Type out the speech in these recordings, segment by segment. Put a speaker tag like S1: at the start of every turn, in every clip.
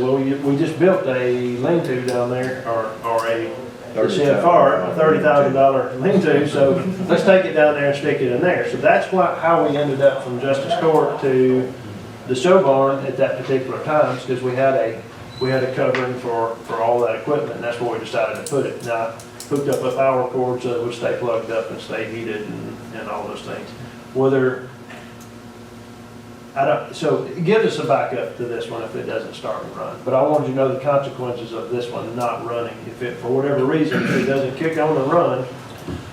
S1: well, we, we just built a lean-to down there, or, or a, it's in
S2: 30,000.
S1: far, a thirty thousand dollar lean-to, so let's take it down there and stick it in there. So that's why, how we ended up from Justice Court to the show barn at that particular time, because we had a, we had a covering for, for all that equipment, and that's where we decided to put it. Now, hooked up a power cord so it would stay plugged up and stay heated and, and all those things. Whether I don't, so it gives us a backup to this one if it doesn't start and run. But I wanted you to know the consequences of this one not running. If it, for whatever reason, if it doesn't kick on and run,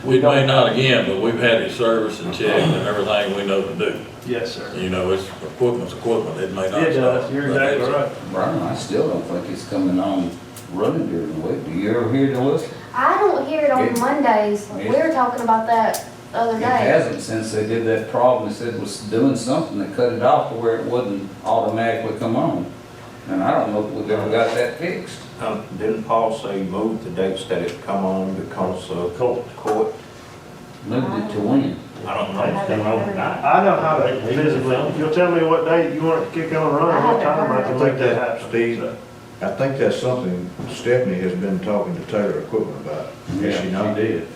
S1: we
S3: It may
S1: don't.
S3: not again, but we've had it serviced and checked and everything we know to do.
S1: Yes, sir.
S3: You know, it's, equipment's equipment, it may
S1: It
S3: not.
S1: does.
S3: stop,
S1: You're
S3: but
S1: exactly
S3: it's-
S1: right.
S2: Brian, I still don't think it's coming on running during the week. Do you ever hear the whistle?
S4: I don't hear it on
S2: It-
S4: Mondays. We were talking about that the other
S2: It
S4: day.
S2: hasn't since they did that problem. They said it was doing something that cut it off to where it wouldn't automatically come on. And I don't know if we've ever got that fixed.
S5: Um, Didn't Paul say move the dates that it come on because of
S6: Court.
S5: court?
S2: Moved it to when?
S6: I don't know, it's been overnight.
S1: I know how to visibly, if you'll tell me what day you want it to kick on and run, what time I can make that happen.
S7: Steve, I think that's something Stephanie has been talking to Taylor Equipment about. Has she not?
S6: did.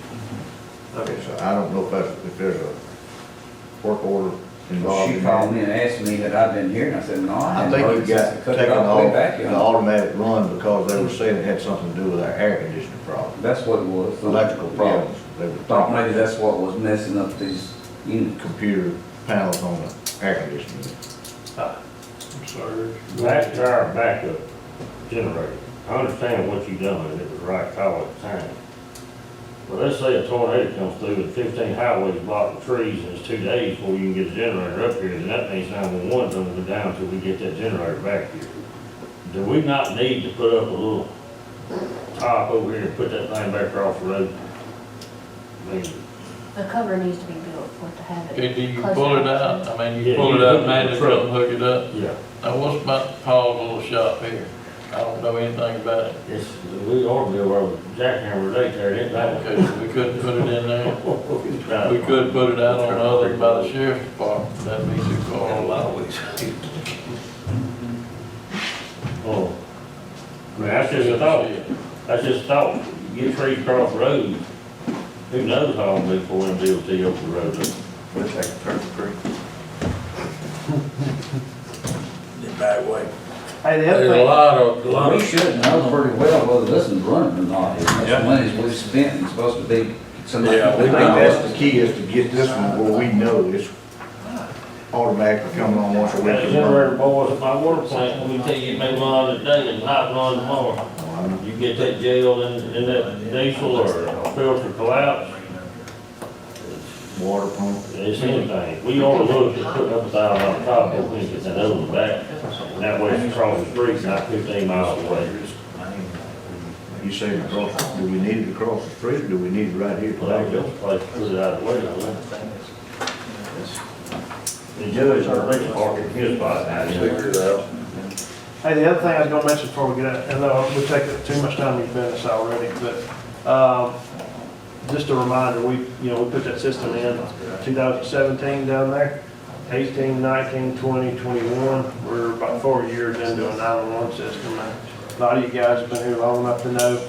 S1: Okay.
S7: So I don't know if that's, if there's a work order involved
S2: She
S7: in
S2: called
S7: that.
S2: me and asked me had I been here, and I said, no, I
S7: I
S2: hadn't
S7: think
S2: heard
S7: you
S2: it
S7: got
S2: since they cut it
S7: taken
S2: off way
S7: off
S2: back.
S7: the
S2: in."
S7: automatic run because they were saying it had something to do with our air conditioning problem,
S2: That's what it was.
S7: electrical problems. They were
S2: Thought maybe
S7: talking
S2: that's what was messing up these units.
S7: computer panels on the air conditioning.
S1: uh, I'm sorry.
S6: Back to our backup generator. I understand what you done, and it was the right call at the time. But let's say a tornado comes through with fifteen highways blocking trees, and it's two days before you can get a generator up here, then that means nine-one-one's gonna go down until we get that generator back here. Do we not need to put up a little top over here and put that thing back across the road? I mean,
S4: The cover needs to be built for it to have it.
S8: Okay, do you
S4: close
S8: pull it
S4: enough.
S8: out? I mean,
S6: Yeah,
S8: you pull
S6: you
S8: it up,
S6: hook it
S8: man,
S6: to the
S8: it
S6: truck.
S8: up, hook it up.
S6: yeah,
S8: Now, what's about Paul's little shop here? I don't know anything about it.
S6: it's, we ought to be able to jackhammer right there, it ain't that.
S8: Okay, so we couldn't put it in there. We could put it out on the other by the sheriff's department. That'd be too far.
S6: Oh. I mean, that's just a thought, that's just a thought, you get trees across the road, who knows how long before them DOT opens the road up.
S5: Looks like thirty-three.
S3: it's That way.
S1: Hey, the other
S3: There's a
S1: thing,
S3: lot of, a lot
S2: We
S3: of,
S2: should know pretty well whether this is running or not. It's
S3: Yeah.
S2: the money we've spent, it's supposed to be somebody.
S3: Yeah, we
S7: I think that's the key is to get this one where we know it's automatically coming on once a week.
S6: That generator boys at my water plant, let me tell you, it may run today and not run tomorrow. You get that jail and, and that diesel or filter collapse,
S7: Water pump.
S6: it's anything. We ought to look at putting up a thousand on top, but we can get that over the back, and that way it's across the street, not fifteen miles away.
S7: You saying across, do we need it across the street, or do we need it right here?
S6: Well, that was a place to put it out of the way, I wouldn't think. The judge or police department, his by now.
S3: figure it out.
S1: hey, the other thing I was gonna mention before we get out, and uh, we take up too much time, you've done this already, but, um, just a reminder, we, you know, we put that system in 2017 down there, 18, 19, 20, 21. We're about four years into a 911 system. now. A lot of you guys have been here long enough to know,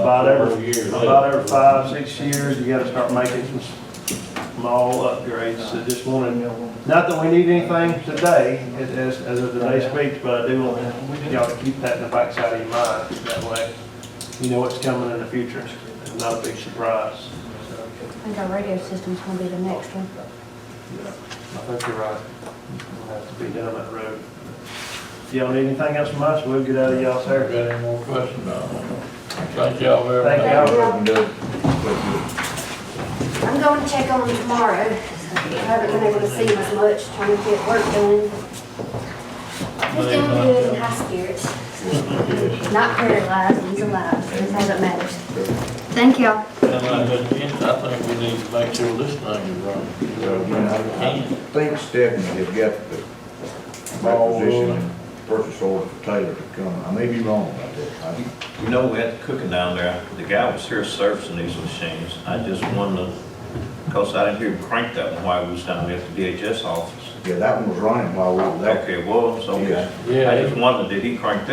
S1: about every, about every five, six years, you gotta start making some small upgrades. So just wanted, not that we need anything today, as, as of today's speech, but I do want y'all to keep that in the backside of your mind, that way you know what's coming in the future, it's not a big surprise.
S4: I think our radio system's gonna be the next one.
S1: I think you're right. We'll have to be down that road. Y'all need anything else from us? We'll get out of y'all's hair.
S8: Got any more questions? Thank y'all very much.
S1: Thank y'all.
S4: I'm going to check on them tomorrow. I haven't been able to see them as much, trying to get work done. Just doing good in high spirits. Not paralyzed, he's alive, that's all that matters. Thank y'all.
S8: And I think- I think we need to make sure this thing is running.
S7: I think Stephanie has got the acquisition and purchase order for Taylor to come, I may be wrong about that. I-
S9: You know, we had cooking down there, the guy was here servicing these machines, I just wanted to, cause I didn't hear him crank that one while we was down there at the DHS office.
S7: Yeah, that one was running while we were there.
S9: Okay, well, so,
S7: Yes.
S9: I just wondered, did he crank that